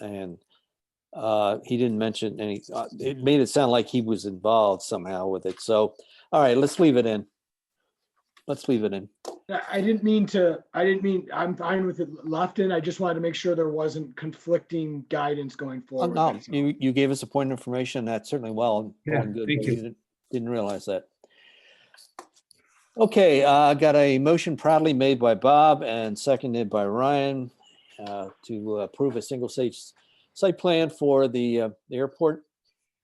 and uh, he didn't mention any, uh, it made it sound like he was involved somehow with it. So, all right, let's leave it in. Let's leave it in. Yeah, I didn't mean to, I didn't mean, I'm fine with it left in. I just wanted to make sure there wasn't conflicting guidance going Oh, forward. no, that's all. you, you gave us a point of information. That's certainly well. Yeah, and good, thank but you. didn't- Didn't realize that. Okay, I got a motion proudly made by Bob and seconded by Ryan uh, to approve a single stage site plan for the uh, the airport.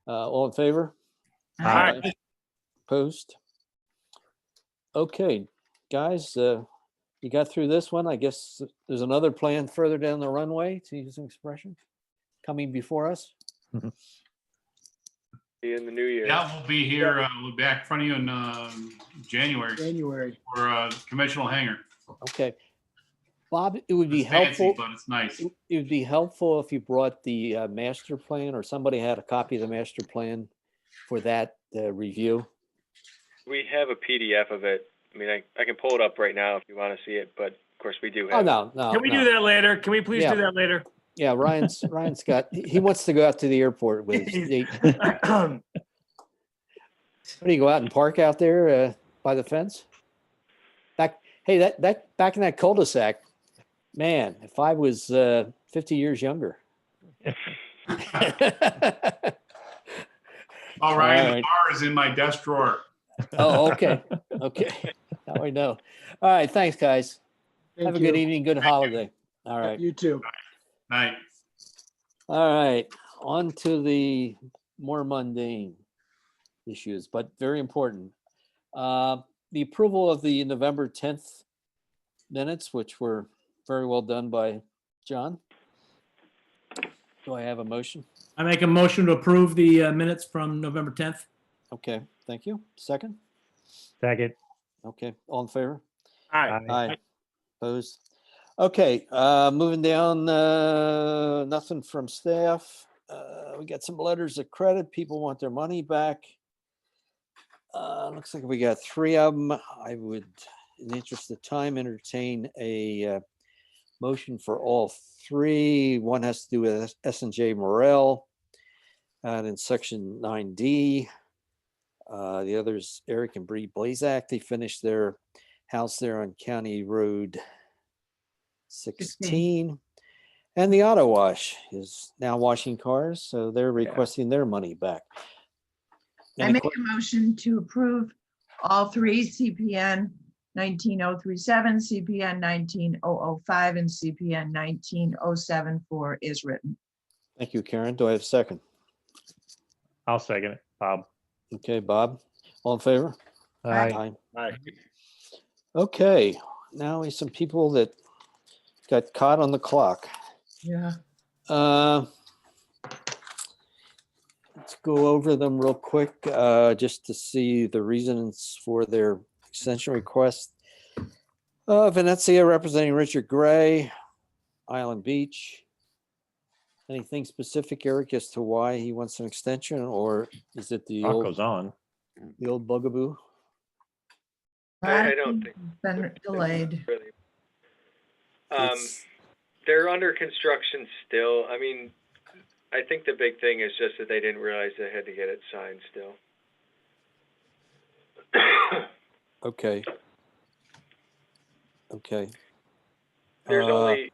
Uh, All in favor? Aye. Opposed? Okay, guys, uh, you got through this one. I guess there's another plan further down the runway, to use an expression, coming before us. See you in the new year. Yeah, we'll be here, uh, we'll be back in front of you in, um, January January. for, uh, conventional hangar. Okay. Bob, it would be It's fancy, helpful, but it's nice. it it would be helpful if you brought the uh, master plan or somebody had a copy of the master plan for that uh, review. We have a PDF of it. I mean, I, I can pull it up right now if you want to see it, but of course we do Oh, have. it. no, no. Can we do no. that later? Can we please Yeah. do that later? Yeah, Ryan's, Ryan's got, he he wants to go out to the airport with, his- they- what do you go out and park out there uh, by the fence? Back, hey, that, that, back in that cul-de-sac, man, if I was uh, 50 years younger. All right, Alright. the bar is in my desk drawer. Oh, okay, okay. Now I know. All right, thanks, guys. Have Thank a good you. evening, good holiday. All Yep, right, You too. Night. all right. On to the more mundane issues, but very important. Uh, The approval of the November 10th minutes, which were very well done by John. Do I have a motion? I make a motion to approve the uh, minutes from November 10th. Okay, thank you. Second? Second. Okay, all in favor? All right. Aye. Aye. Opposed? Okay, uh, moving down, uh, nothing from staff. Uh, we got some letters of credit. People want their money back. Uh, looks like we got three of them. I would, in the interest of time, entertain a, uh, motion for all three. One has to do with S and J Morel. And in section nine D, uh, the others, Eric and Bree Blazak, they finished their house there on County Road 16. And the auto wash is now washing cars, so they're requesting their money back. I Any make que- a motion to approve all three CPN nineteen oh three seven, CPN nineteen oh oh five, and CPN nineteen oh seven four is written. Thank you, Karen. Do I have a second? I'll second it. Bob. Okay, Bob, all in favor? Aye. Aye. Okay, now is some people that got caught on the clock. Yeah. Uh, Let's go over them real quick, uh, just to see the reasons for their extension request. Uh, Venezia representing Richard Gray, Island Beach. Anything specific, Eric, as to why he wants an extension, or is it the Talk old, goes on. the old bugaboo? I- I don't think- Been delayed. Really. Um, It's- they're under construction still. I mean, I think the big thing is just that they didn't realize they had to get it signed still. Okay. Okay. There's Uh, only,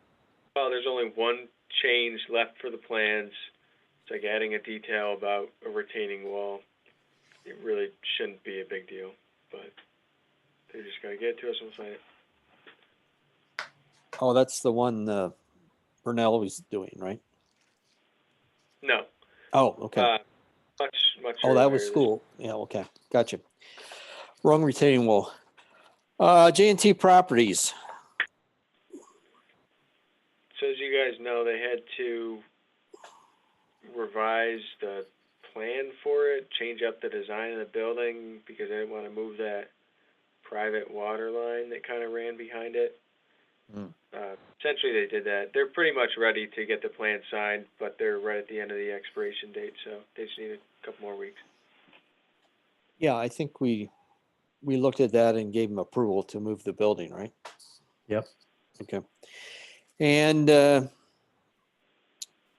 well, there's only one change left for the plans. It's like adding a detail about a retaining wall. It really shouldn't be a big deal, but they're just gonna get it to us and we'll sign it. Oh, that's the one uh, Brunel was doing, right? No, Oh, okay. uh, much, much. Oh, that was earlier. school. Yeah, okay. Gotcha. Wrong retaining wall. Uh, J and T Properties. So as you guys know, they had to revise the plan for it, change up the design of the building because they didn't want to move that private water line that kind of ran behind it. Hmm. Uh, essentially, they did that. They're pretty much ready to get the plan signed, but they're right at the end of the expiration date, so they just need a couple more weeks. Yeah, I think we, we looked at that and gave them approval to move the building, right? Yep. Okay. And uh,